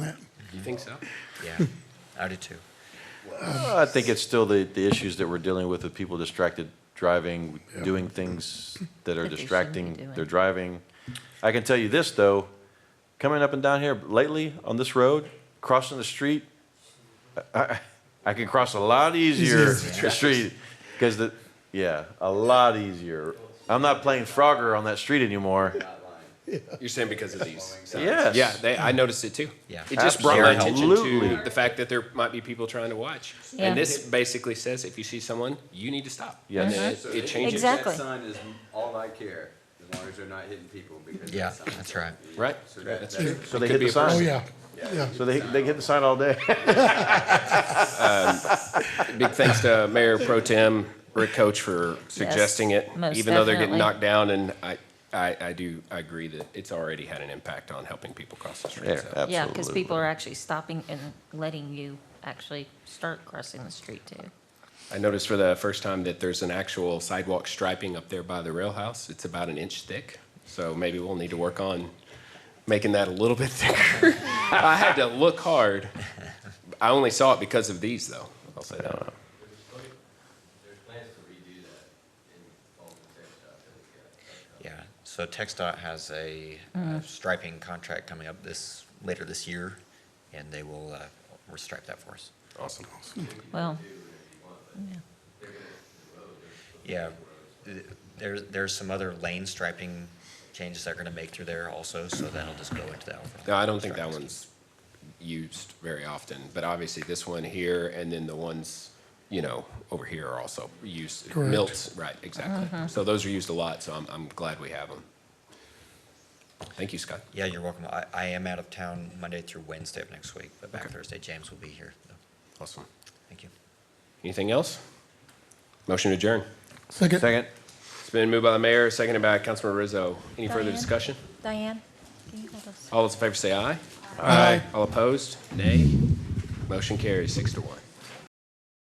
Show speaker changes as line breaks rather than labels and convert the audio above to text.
You think so? Yeah, I do too.
I think it's still the, the issues that we're dealing with, with people distracted driving,
Yeah.
doing things that are
That they shouldn't be
distracting
doing.
their driving. I can tell you this, though, coming up and down here lately on this road, crossing the street, I- I, I can cross a lot easier the street, because the, yeah, a lot easier. I'm not playing Frogger on that street anymore.
You're saying because of these? signs.
Yes.
Yeah, they, I noticed it too.
Yeah.
It just brought my attention
Absolutely.
to the fact that there might be people trying to watch.
Yeah.
And this basically says if you see someone, you need to stop. And
Yes.
then it- it changes.
Exact-
That sign is all I care, as long as they're not hitting people because. that
Yeah,
sign's
that's
up.
right.
Right?
So that, that's.
So they
Could
hit
be
the
a person.
Oh,
sign.
yeah, yeah.
So they, they hit the sign all day.
Big thanks to Mayor Pro Tem Rick Coach for suggesting it,
most
even though they're getting
definitely.
knocked down. And I, I, I do, I agree that it's already had an impact on helping people cross the street.
There,
So,
absolutely.
Yeah, because people are actually stopping and letting you actually start crossing the street too.
I noticed for the first time that there's an actual sidewalk striping up there by the rail house. It's about an inch thick. So maybe we'll need to work on making that a little bit thicker. I had to look hard. I only saw it because of these, though. I'll say that.
There's plans to redo that in all the tech stuff that we got.
Yeah, so TechDOT has a uh, striping contract coming up this, later this year, and they will, uh, restripe that for us.
Awesome.
Well,
Yeah, th- there's, there's some other lane striping changes they're gonna make through there also, so that'll just go into that. overall
No, I don't think that
striping.
one's used very often, but obviously this one here and then the ones, you know, over here are also used.
Correct.
Milts, right, exactly. So those are used a lot, so I'm, I'm glad we have them. Thank you, Scott.
Yeah, you're welcome. I, I am out of town Monday through Wednesday of next week, but back Thursday, James will be here. though.
Awesome.
Thank you.
Anything else? Motion to adjourn.
Second,
Second.
It's been moved by the mayor, seconded by Councilman Rizzo. Any further
Diane?
discussion?
Diane, can you hold us?
All those in favor say aye. Aye. All opposed? Nay. Motion carries six to one.